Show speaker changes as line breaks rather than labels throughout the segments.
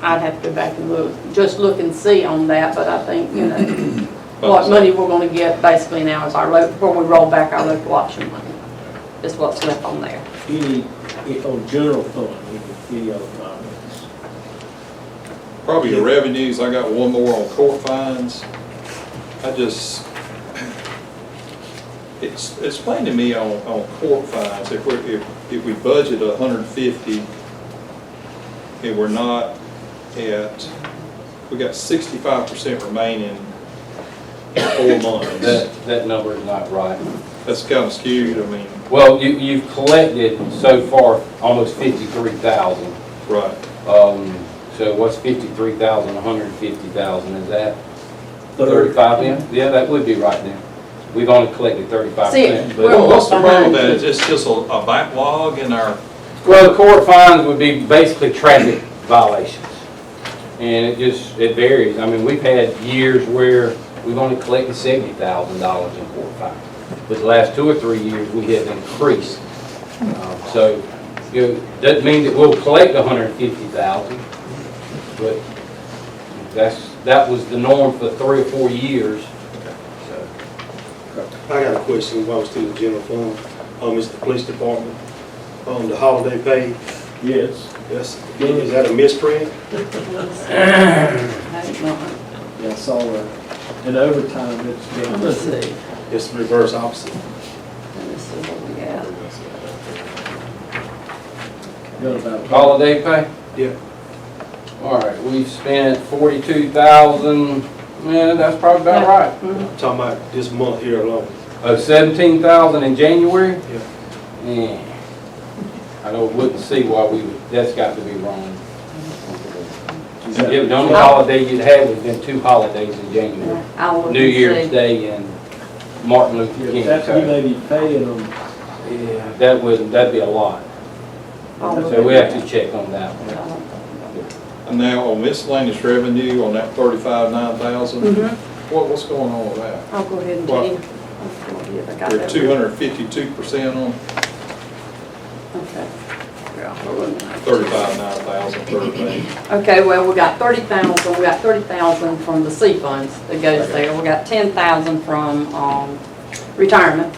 I'd have to go back and look, just look and see on that, but I think, you know, what
But-
money we're gonna get basically now is our, lo- where we roll back our local option money, is what's left on there.
Any, if on general fund, we uh, could any other comments?
Probably the revenues, I got one more on court fines. I just, it's, explain to me on, on court fines, if we're, if, if we budget a hundred and fifty, and we're not at, we got sixty-five percent remaining in four months.
That, that number is not right.
That's kind of skewed, I mean,
Well, you, you've collected so far almost fifty-three thousand.
right,
Um, so what's fifty-three thousand, a hundred and fifty thousand, is that thirty-five then? Yeah, that would be right then. We've only collected thirty-five
See,
percent.
we're-
but
Well, what's the problem with that? It's just- just a a backlog in our,
Well, the court fines would be basically traffic violations. And it just, it varies. I mean, we've had years where we've only collected seventy thousand dollars in court fines. But the last two or three years, we have increased. Um, So, you know, doesn't mean that we'll collect a hundred and fifty thousand, but that's, that was the norm for three or four years. So,
I got a question while we're still in the general fund. Um, it's the police department, um, the holiday pay,
Yes.
that's, is that a misprint?
Yeah, I saw that. And overtime, it's been.
Let's see,
It's the reverse opposite.
let's see what we got.
Got about.
Holiday pay?
Yeah.
All right, we've spent forty-two thousand, yeah, that's probably about right.
Mhm.
Talking about this month here alone.
Oh, seventeen thousand in January?
Yeah.
Yeah. I don't, wouldn't see why we, would. that's got to be wrong.
Is
Yeah,
that-
the only holiday you'd had would have been two holidays in January.
I'll look
New
and
Year's
see.
Day and Martin Luther
Yeah,
King.
That's, you
so-
may be paying them.
Yeah, That would, that'd be a lot.
I'll look
So we have
at
to check on that one.
that.
and now on miscellaneous revenue on that thirty-five, nine thousand,
Mhm.
what, what's going on with that?
I'll go ahead and
Well,
change. I'll go ahead, I got
We're
that.
two hundred and fifty-two percent on
Okay. Here, I'll go in.
thirty-five, nine thousand, thirty-eight.
Okay, well, we got thirty thousand, we got thirty thousand from the C funds that goes there. We got ten thousand from, um, retirement.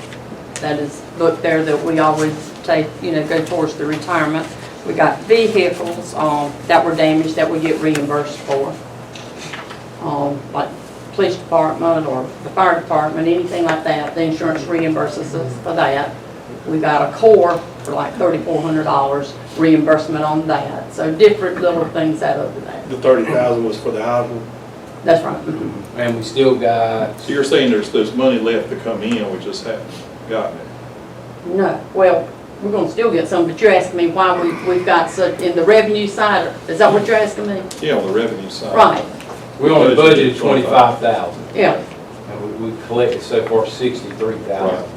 That is booked there that we always take, you know, go towards the retirement. We got vehicles, um, that were damaged that we get reimbursed for. Um, like police department or the fire department, anything like that, the insurance reimburses us for that. We got a core for like thirty-four hundred dollars reimbursement on that. So different little things out of that.
The thirty thousand was for the album.
That's right. Mm-hmm.
And we still got
So you're saying there's, there's money left to come in, we just haven't gotten it?
No, well, we're gonna still get some, but you're asking me why we, we've got such, in the revenue side, is that what you're asking me?
Yeah, on the revenue side.
Right,
We only
Budgeted
budgeted twenty-five thousand,
yeah,
and we, we collected so far sixty-three
Right.
thousand.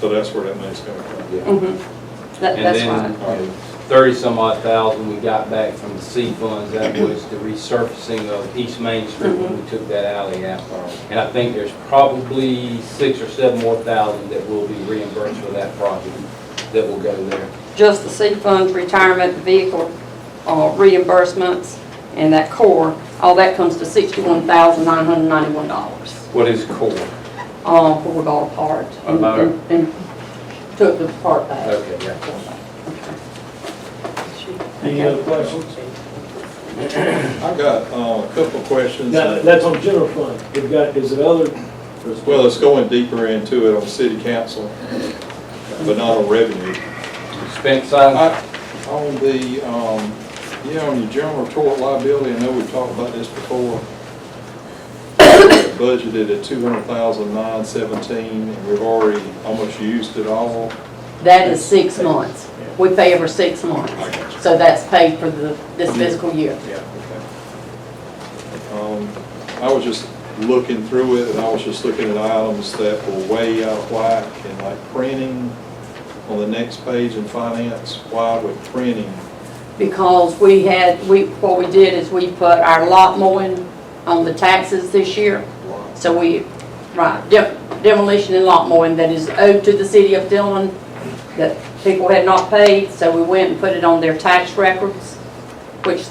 So that's where that money's coming from.
mhm. That,
And
that's
then
right.
thirty-some odd thousand we got back from the C funds, that was the resurfacing of East Main Street when
Mm-hmm.
we took that alley out. And I think there's probably six or seven more thousand that will be reimbursed for that project that will go there.
Just the C funds, retirement, vehicle, uh, reimbursements, and that core, all that comes to sixty-one thousand nine hundred ninety-one dollars.
What is core?
Um, where we bought a part. and-
About-
and- And took the part back.
Okay, yeah.
Any other questions?
I got, uh, a couple of questions.
Now, that's on general fund. We've got, is it other?
Well, it's going deeper into it on city council, but not on revenue.
Expense side,
I- On the, um, yeah, on your general tort liability, I know we've talked about this before. Budgeted at two hundred thousand nine seventeen, and we've already almost used it all.
That is six months. We pay every six months.
I got you. Mm-hmm.
So that's paid for the, this fiscal year.
Yeah. Um, I was just looking through it, and I was just looking at items that were way out of whack, and like printing on the next page in finance, why would printing?
because we had, we, what we did is we put our lot mowing on the taxes this year. So we, right, de- demolition and lot mowing that is owed to the city of Dillon that people had not paid, so we went and put it on their tax records, which